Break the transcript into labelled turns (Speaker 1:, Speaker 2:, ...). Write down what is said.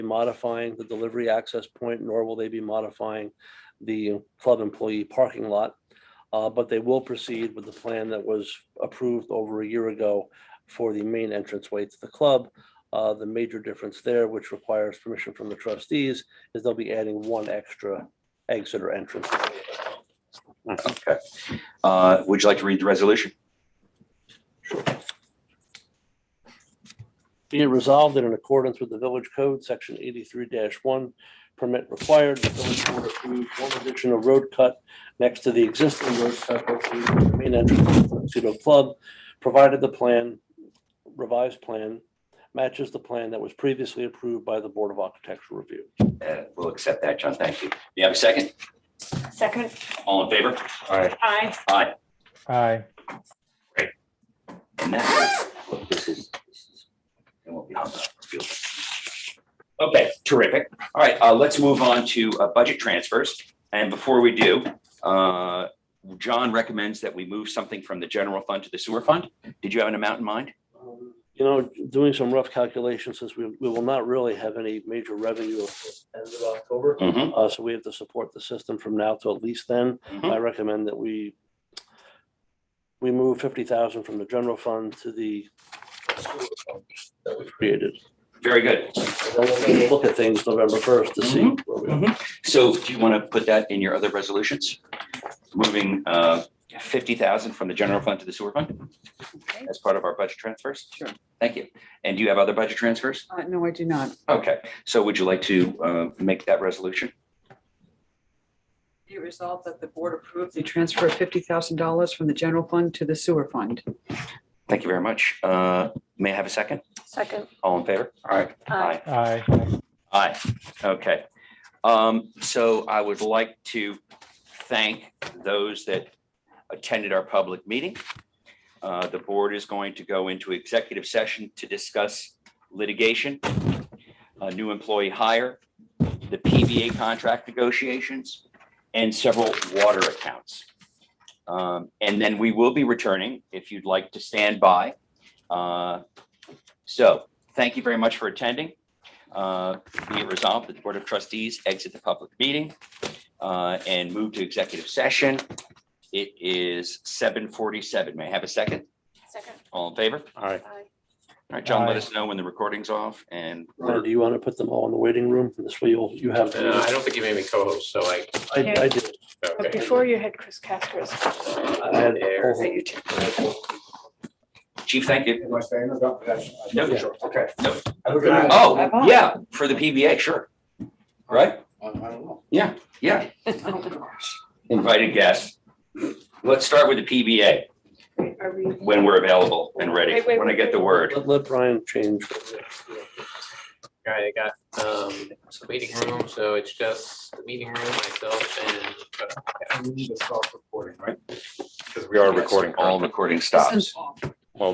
Speaker 1: modifying the delivery access point, nor will they be modifying the club employee parking lot. Uh, But they will proceed with the plan that was approved over a year ago for the main entranceway to the club. Uh, The major difference there, which requires permission from the trustees, is they'll be adding one extra exit or entrance.
Speaker 2: Okay. Uh, Would you like to read the resolution?
Speaker 1: Be it resolved that in accordance with the village code, section eighty-three one, permit required, the village board approved one addition of road cut next to the existing road cut located at the main entrance of the Tuxedo Club, provided the plan, revised plan, matches the plan that was previously approved by the Board of Architectural Review.
Speaker 2: Uh, We'll accept that, John. Thank you. Do you have a second?
Speaker 3: Second,
Speaker 2: All in favor?
Speaker 4: Aye.
Speaker 3: aye.
Speaker 2: Aye.
Speaker 4: Aye.
Speaker 2: And that, look, this is, this is. it won't be hung up. Feel free. Okay, terrific. All right, uh, let's move on to uh, budget transfers. And before we do, uh, John recommends that we move something from the general fund to the sewer fund. Did you have an amount in mind?
Speaker 1: Um, You know, doing some rough calculations, since we, we will not really have any major revenue at the end of October.
Speaker 2: Mm-hmm.
Speaker 1: Uh, so we have to support the system from now till at least then.
Speaker 2: Mhm.
Speaker 1: I recommend that we we move fifty thousand from the general fund to the that we created.
Speaker 2: Very good.
Speaker 1: And then we'll take a Look at things November first to see. where we are.
Speaker 2: So do you want to put that in your other resolutions? Moving uh, 50,000 from the general fund to the sewer fund? As part of our budget transfers?
Speaker 5: Sure.
Speaker 2: Thank you. And do you have other budget transfers?
Speaker 5: Uh, no, I do not.
Speaker 2: Okay, so would you like to uh, make that resolution?
Speaker 5: Be it resolved that the board approve the transfer of fifty thousand dollars from the general fund to the sewer fund.
Speaker 2: Thank you very much. Uh, May I have a second?
Speaker 3: Second,
Speaker 2: All in favor? All right.
Speaker 3: aye.
Speaker 4: Aye.
Speaker 2: Aye, okay. Um, so I would like to thank those that attended our public meeting. Uh, the board is going to go into executive session to discuss litigation, a new employee hire, the PVA contract negotiations, and several water accounts. Um, and then we will be returning if you'd like to stand by. Uh, so thank you very much for attending. Uh, be it resolved that the Board of Trustees exit the public meeting uh, and move to executive session. It is seven forty-seven. May I have a second?
Speaker 3: Second,
Speaker 2: All in favor? All
Speaker 1: Aye.
Speaker 3: aye.
Speaker 2: right, John, let
Speaker 4: Aye.
Speaker 2: us know when the recording's off and
Speaker 1: Now, Do you want to put them all in the waiting room? This way you'll, you have.
Speaker 6: Uh, I don't think you made me co-host, so I,
Speaker 1: I, I did.
Speaker 3: But
Speaker 6: okay.
Speaker 3: before you had Chris Castro's.
Speaker 1: I had a
Speaker 6: There.
Speaker 1: whole-
Speaker 2: Chief, thank you.
Speaker 7: Am I staying? No, no, that's-
Speaker 2: No.
Speaker 7: sure. Okay.
Speaker 2: No.
Speaker 7: Have a good night.
Speaker 2: Oh, yeah, for the PBA, sure. Right?
Speaker 7: I I don't know.
Speaker 2: Yeah, invited guests. Let's start with the PBA
Speaker 3: Are we?
Speaker 2: when we're available and ready,
Speaker 3: Wait, wait,
Speaker 2: when I
Speaker 3: wait,
Speaker 2: get the
Speaker 3: wait.
Speaker 2: word.
Speaker 1: Let, let Brian change.
Speaker 6: All right, I got, um, it's a meeting room, so it's just the meeting room, myself and. uh,
Speaker 7: We need to stop recording, right?
Speaker 6: Because
Speaker 2: All recording
Speaker 5: This
Speaker 2: stops.
Speaker 5: is off.